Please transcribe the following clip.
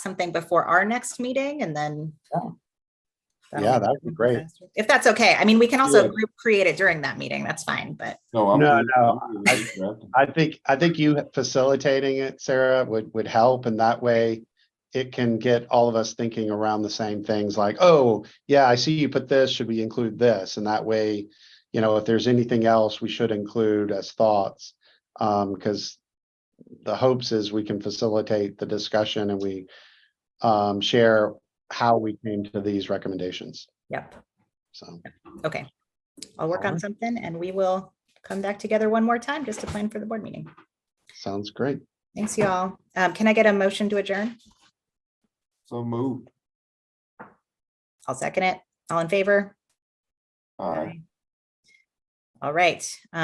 something before our next meeting and then. Yeah. That'll Yeah, make that'd be it great. faster. If that's okay. I mean, we can also Yeah. group create it during that meeting. That's fine, but No, I'm. No, good. no, I'm good with that. I think, I think you facilitating it, Sarah, would, would help and that way it can get all of us thinking around the same things like, oh, yeah, I see you put this, should we include this? And that way, you know, if there's anything else we should include as thoughts, um, because the hopes is we can facilitate the discussion and we um, share how we came to these recommendations, yep, so. okay. I'll work on Alright. something and we will come back together one more time just to plan for the board meeting. Sounds great. Thanks, y'all. Um, can I get a motion to adjourn? So moved. I'll second it. All in favor? All right. All right,